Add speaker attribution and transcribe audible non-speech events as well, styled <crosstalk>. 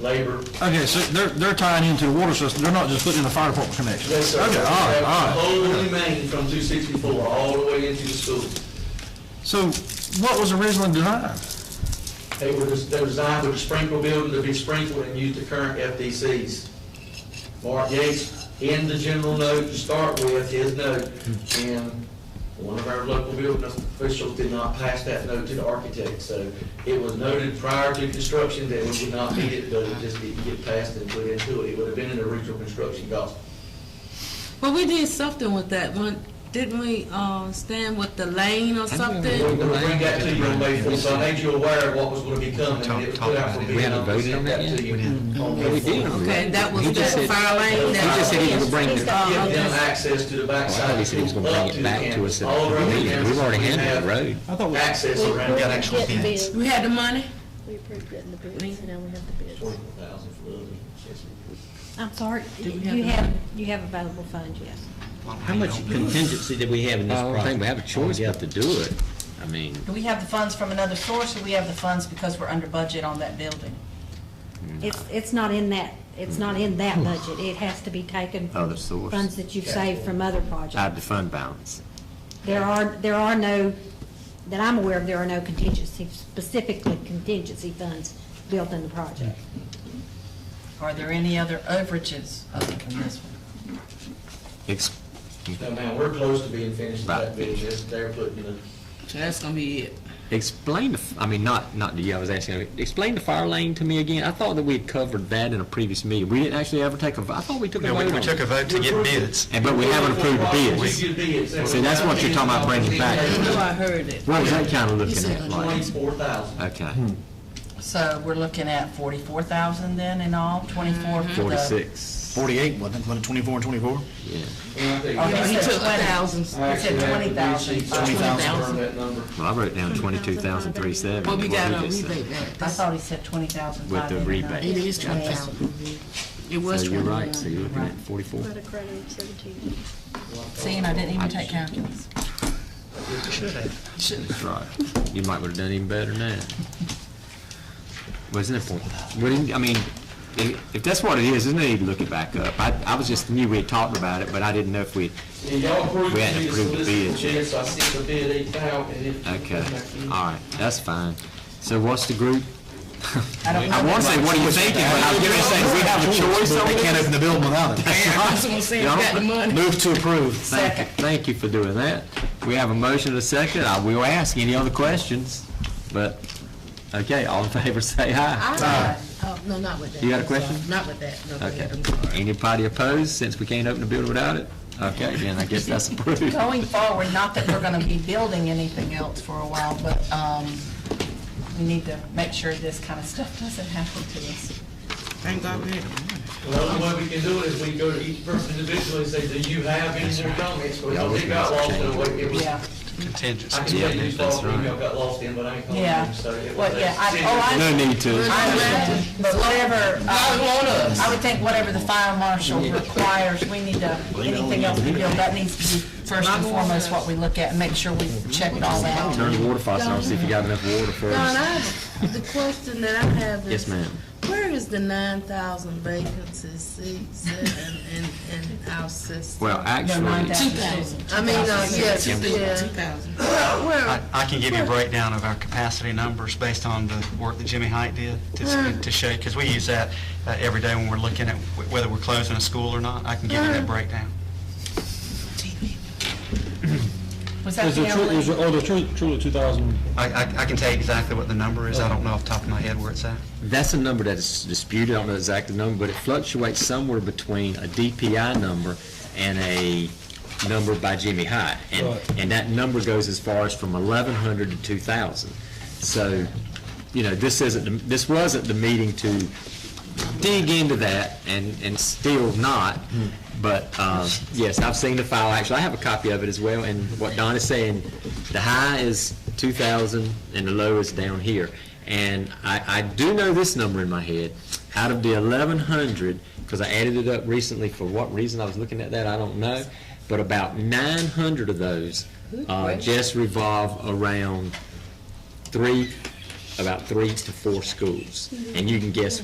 Speaker 1: labor.
Speaker 2: Okay, so they're, they're tying into the water system, they're not just putting in a fire department connection?
Speaker 1: Yes, sir.
Speaker 2: Okay, all right, all right.
Speaker 1: Only main from two sixty-four all the way into the school.
Speaker 2: So what was originally designed?
Speaker 1: They were, they were designed with a sprinkler building to be sprinkled and use the current FDCs. Mark Yates, in the general note to start with, his note, and one of our local building officials did not pass that note to the architect, so it was noted prior to construction that we would not need it, but it just didn't get passed and put into it. It would have been in the original construction cost.
Speaker 3: Well, we did something with that one, didn't we, uh, stand with the lane or
Speaker 1: We're
Speaker 3: something?
Speaker 1: gonna bring that to you on May fourth, so I made you aware of what was gonna be coming, and it was put out for bid,
Speaker 4: We
Speaker 1: and
Speaker 4: haven't
Speaker 1: we
Speaker 4: voted
Speaker 1: sent
Speaker 4: on that
Speaker 1: that to
Speaker 4: yet?
Speaker 1: you.
Speaker 4: We didn't.
Speaker 1: on May
Speaker 4: Yeah, we did.
Speaker 1: 4th.
Speaker 3: Okay, that was
Speaker 4: He just
Speaker 3: that
Speaker 4: said-
Speaker 3: fire lane that.
Speaker 4: He just said he was gonna bring it.
Speaker 3: Uh,
Speaker 1: Give them
Speaker 3: okay.
Speaker 1: access to the
Speaker 4: Well, I
Speaker 1: backside.
Speaker 4: thought he said he was gonna bring it back to us at the meeting. We've already handled the road.
Speaker 2: I thought we-
Speaker 1: Access around.
Speaker 5: We- actual
Speaker 6: Getting
Speaker 5: bids.
Speaker 6: bids.
Speaker 3: We had the money?
Speaker 6: We approved getting the bids, and now we have the bids.
Speaker 1: 40,000 for the other one.
Speaker 5: I'm sorry,
Speaker 3: Do we have
Speaker 5: you
Speaker 3: the-
Speaker 5: have, you have available funds, yes.
Speaker 7: How much contingency did we have in this
Speaker 4: I
Speaker 7: project?
Speaker 4: don't think we have a choice but to do it. I mean,
Speaker 8: Do we have the funds from another source, or we have the funds because we're under budget on that building?
Speaker 5: It's, it's not in that, it's not in that budget, it has to be taken from
Speaker 4: Other source.
Speaker 5: funds that you've saved from other
Speaker 4: out of
Speaker 5: projects.
Speaker 4: the fund balance.
Speaker 5: There are, there are no, that I'm aware of, there are no contingency, specifically contingency funds built in the project.
Speaker 8: Are there any other overages other than this one?
Speaker 4: Ex-
Speaker 1: No, man, we're close to being finished with that
Speaker 4: Right.
Speaker 1: bid, just they're putting the,
Speaker 3: So that's gonna be it.
Speaker 4: Explain the, f- I mean, not, not to you, I was asking, explain the fire lane to me again. I thought that we had covered that in a previous meeting. We didn't actually ever take a, vo- I thought we took a
Speaker 9: No,
Speaker 4: vote
Speaker 9: we,
Speaker 4: on
Speaker 9: we took a
Speaker 4: it.
Speaker 9: vote to get bids.
Speaker 4: And, but we haven't approved the bids.
Speaker 1: We get bids.
Speaker 4: See, that's what you're talking about bringing back.
Speaker 3: I know I heard it.
Speaker 4: What was that kind of
Speaker 3: You
Speaker 4: looking
Speaker 3: said
Speaker 4: at, like?
Speaker 1: Twenty-four thousand.
Speaker 4: Okay,
Speaker 8: So we're looking at forty-four thousand then in all, twenty-four for the.
Speaker 4: forty-six,
Speaker 9: Forty-eight, wasn't it, was it twenty-four and twenty-four?
Speaker 4: yeah,
Speaker 3: He
Speaker 8: Oh, He
Speaker 3: took
Speaker 8: said
Speaker 3: a
Speaker 8: 20.
Speaker 3: thousand.
Speaker 1: I actually have the
Speaker 8: 20,000.
Speaker 1: receipt. I can confirm
Speaker 9: 20,000.
Speaker 1: that number.
Speaker 4: well, I wrote down twenty-two thousand three seventy.
Speaker 3: Well, we got a
Speaker 4: just said.
Speaker 3: rebate
Speaker 8: I
Speaker 3: back.
Speaker 8: thought he said twenty thousand
Speaker 4: With
Speaker 8: five.
Speaker 4: the rebate.
Speaker 3: It is twenty thousand. It was
Speaker 4: So you're
Speaker 3: twenty-one.
Speaker 4: right, so you're looking at forty-four.
Speaker 6: About a credit of seventeen.
Speaker 8: Seeing, I didn't even take calculus.
Speaker 4: That's right. You might would've done even better than that. Wasn't it point? What do you- I mean, if, if that's what it is, there's no need to look it back up. I, I was just, knew we had talked about it, but I didn't know if we,
Speaker 1: And y'all approved
Speaker 4: We hadn't
Speaker 1: the
Speaker 4: approved the
Speaker 1: solicitor
Speaker 4: bid
Speaker 1: bid, so I sent the bid eight thousand, and it.
Speaker 4: okay, all right, that's fine. So what's the group?
Speaker 8: I don't
Speaker 4: I
Speaker 8: know.
Speaker 4: wanna say, what are you thinking, but I was gonna say, we have a choice on
Speaker 9: They
Speaker 4: this?
Speaker 9: can't open the building without it.
Speaker 3: I was gonna say, I got the money.
Speaker 9: Move to approve.
Speaker 4: Thank you, thank you for doing that. We have a motion and a second. I will ask any other questions, but, okay, all in favor, say aye.
Speaker 3: I- Oh, no, not with that.
Speaker 4: You got a question?
Speaker 3: Not with that, no.
Speaker 4: Okay.
Speaker 3: I'm sorry.
Speaker 4: Anybody opposed, since we can't open the building without it? Okay, then I guess that's
Speaker 3: <laughs>
Speaker 4: approved.
Speaker 8: Going forward, not that we're gonna be building anything else for a while, but, um, we need to make sure this kind of stuff doesn't happen to us.
Speaker 3: Thank God we had the money.
Speaker 1: The only way we can do it is we go to each person individually and say, do you have any more comments? Because they got lost in the way, it was,
Speaker 8: Yeah,
Speaker 1: I
Speaker 9: Contingency.
Speaker 1: can tell you, you
Speaker 4: that's
Speaker 1: saw,
Speaker 4: right.
Speaker 1: email got lost in, but I ain't calling
Speaker 8: yeah.
Speaker 1: them, so it was.
Speaker 8: Well,
Speaker 1: a
Speaker 8: yeah, I,
Speaker 1: decision.
Speaker 8: oh, I.
Speaker 4: No need to.
Speaker 8: I imagine, but whatever,
Speaker 3: God
Speaker 8: uh,
Speaker 3: want us.
Speaker 8: I would think whatever the fire marshal requires, we need to, anything else we build, that needs to be first and foremost what we look at and make sure we check it all out.
Speaker 4: Turn the water faucet on, see if you got enough water for
Speaker 3: Don, I
Speaker 4: us.
Speaker 3: <laughs> have, the question that I have is.
Speaker 4: Yes, ma'am.
Speaker 3: Where is the nine thousand vacancy seats in, in, in our system?
Speaker 4: Well, actually,
Speaker 3: I mean, uh, yes, yeah.
Speaker 9: I, I can give you a breakdown of our capacity numbers based on the work that Jimmy Height did to, to show, because we use that uh, every day when we're looking at wh- whether we're closing a school or not. I can give you that breakdown.
Speaker 8: Was that the only?
Speaker 2: oh, there's truly, truly two thousand?
Speaker 9: I, I I can tell you exactly what the number is. I don't know off the top of my head where it's at.
Speaker 4: that's a number that is disputed, I don't know the exact number, but it fluctuates somewhere between a DPI number and a number by Jimmy High. And, and that number goes as far as from 1,100 to 2,000. So, you know, this isn't, the- this wasn't the meeting to dig into that and, and still not. But, um, yes, I've seen the file, actually, I have a copy of it as well, and what Don is saying, the high is two thousand and the low is down here. And I, I do know this number in my head, out of the eleven hundred, because I added it up recently, for what reason I was looking at that, I don't know, but about nine hundred of those, uh, just revolve around three, about three to four schools. And you can guess